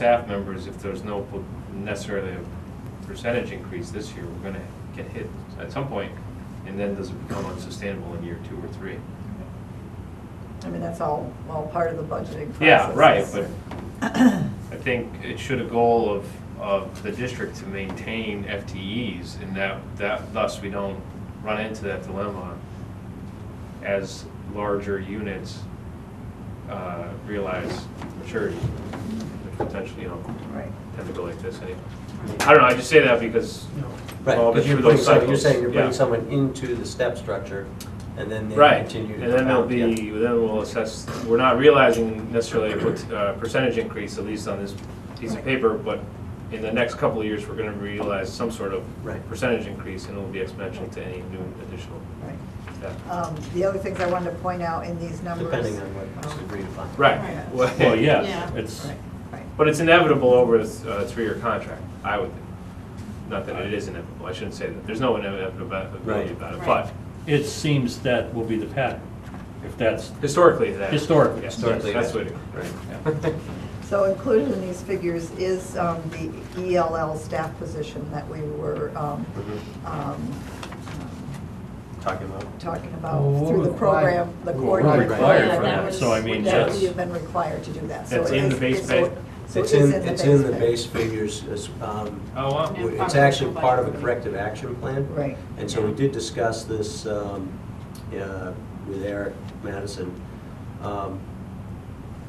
staff members, if there's no po- necessarily a percentage increase this year, we're gonna get hit at some point, and then does it become unsustainable in year two or three? I mean, that's all, all part of the budgeting process. Yeah, right, but I think it should a goal of, of the district to maintain FTEs, and that, that, thus we don't run into that dilemma as larger units uh, realize maturity, which potentially, you know, Right. tend to go like this anyway. I don't know, I just say that because Right, Well, because but you're through putting those someone, you're cycles, saying you're yeah. putting someone into the step structure, and then they Right, continue to. and then there'll compound, yeah. be, then we'll assess, we're not realizing necessarily a per- uh, percentage increase, at least on this piece of Right. paper, but in the next couple of years, we're gonna realize some sort of Right. percentage increase, and it'll be exponential to any new additional Right. staff. Um, The other things I wanted to point out in these numbers. Depending on what's um, agreed upon. Right, Right. well, yeah, Yeah. it's, Right, right. but it's inevitable over a th- a three-year contract, I would think. Not that it is inevitable, I shouldn't say that, there's no inevitability Right. about it, Right. but It seems that will be the pattern, if that's historically, that. Historically. Yeah, Historically, That's that- what it. right. So included in these figures is um, the ELL staff position that we were um, Mm-hmm. um, Talking about. talking Well, about we're through the program, Oh, required- the we're coordinator. required Yeah, for that that, was- so I mean, That that's, we have been required to do that. So That's it in the is- base so- pay. so it It's is in, it's in the pay. base figures, it's, um, Oh, wow. And it's part of actually the part of a budget. corrective action plan. Right. And so we did discuss this um, uh, with Eric Madison. Um,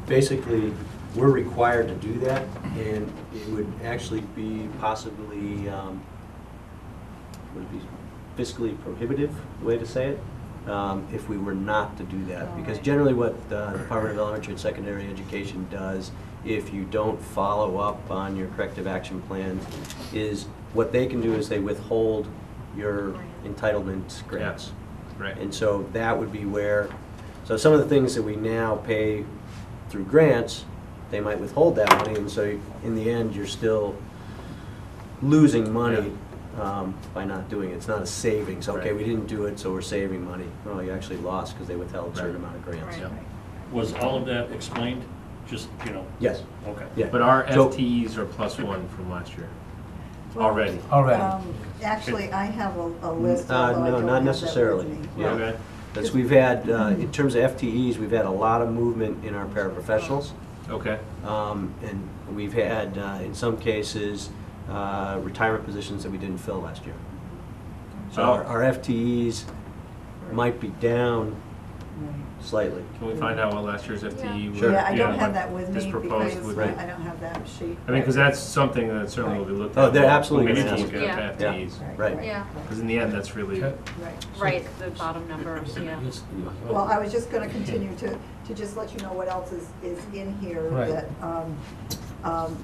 Basically, we're required to do that, and it would actually be possibly, um, would it be fiscally prohibitive, way to say it, um, if we were not to do that. Because Alright. generally what the Department of Elementary and Secondary Education does, if you don't follow up on your corrective action plan, is what they can do is they withhold your entitlement grants. Right. And so that would be where, so some of the things that we now pay through grants, they might withhold that money, and so in the end, you're still losing money um, by not doing it. It's not a savings, okay, Right. we didn't do it, so we're saving money. No, you actually lost because they withheld a Right. certain amount of grants. Right. was all of that explained? Just, you know, Yes, okay. yeah. But our So- FTEs are plus one from last year, Well, already. Already. um, Actually, I have a a list, Uh, although I don't no, have that with not necessarily. me. Yeah. Okay. That's, we've had, uh, in terms of FTEs, we've had a lot of movement in our paraprofessionals. Okay, Um, And we've had, uh, in some cases, uh, retirement positions that we didn't fill last year. So our Oh. our FTEs might be down slightly. can we find out what last year's E FTE? Sure. was? Yeah, I don't have that with This me because proposed would be. I don't have that sheet. I mean, because that's something that certainly will be looked at. Oh, they're absolutely When we gonna look ask. at Yeah. FTEs, Right. Yeah, because in the end, that's really, Okay. Right. right, the bottom numbers, yeah. Well, I was just gonna continue to, to just let you know what else is, is in here Right. that, um, um,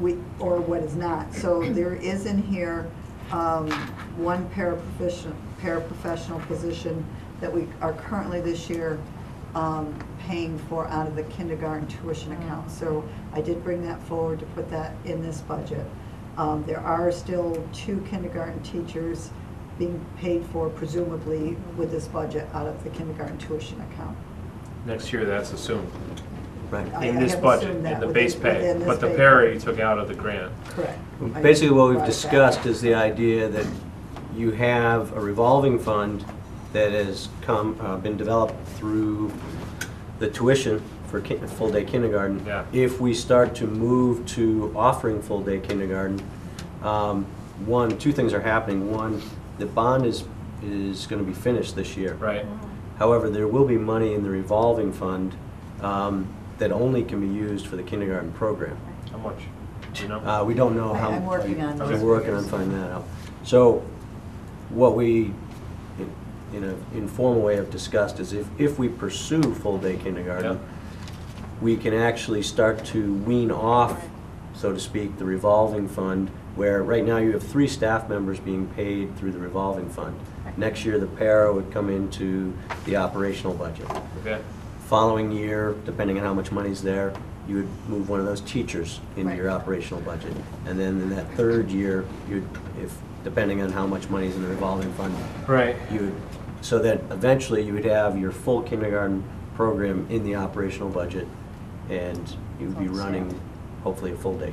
we, or what is not. So there is in here, um, one paraprofessional, paraprofessional position that we are currently this year, um, paying for out of the kindergarten tuition account. So I did bring that forward to put that in this budget. Um, there are still two kindergarten teachers being paid for presumably with this budget out of the kindergarten tuition account. next year, that's assumed, Right. Oh, I- in I this have budget, assumed in that the within- base pay. within this But the pay. parity took out of the grant. Correct. I Basically, what we've brought it back. discussed is the idea that you have a revolving fund that has come, uh, been developed through the tuition for ki- full-day kindergarten. Yeah. If we start to move to offering full-day kindergarten, um, one, two things are happening. One, the bond is, is gonna be finished this year. Right, Mm-hmm. However, there will be money in the revolving fund um, that only can be used for the kindergarten program. how much? Do you know? Uh, We don't know I- how. I'm working on We're those working on figures. finding that out. So what we, in- in an informal way, have discussed is if, if we pursue full-day kindergarten, we can actually start to wean off, so to speak, the revolving fund, where right now you have three staff members being paid through the revolving fund. Next year, the para would come into the operational budget. Okay, Following year, depending on how much money's there, you would move one of those teachers into your Right. operational budget. And then in that third year, you'd, if, depending on how much money's in the revolving fund, right. you would, so that eventually you would have your full kindergarten program in the operational budget, and you'd be running hopefully a full day.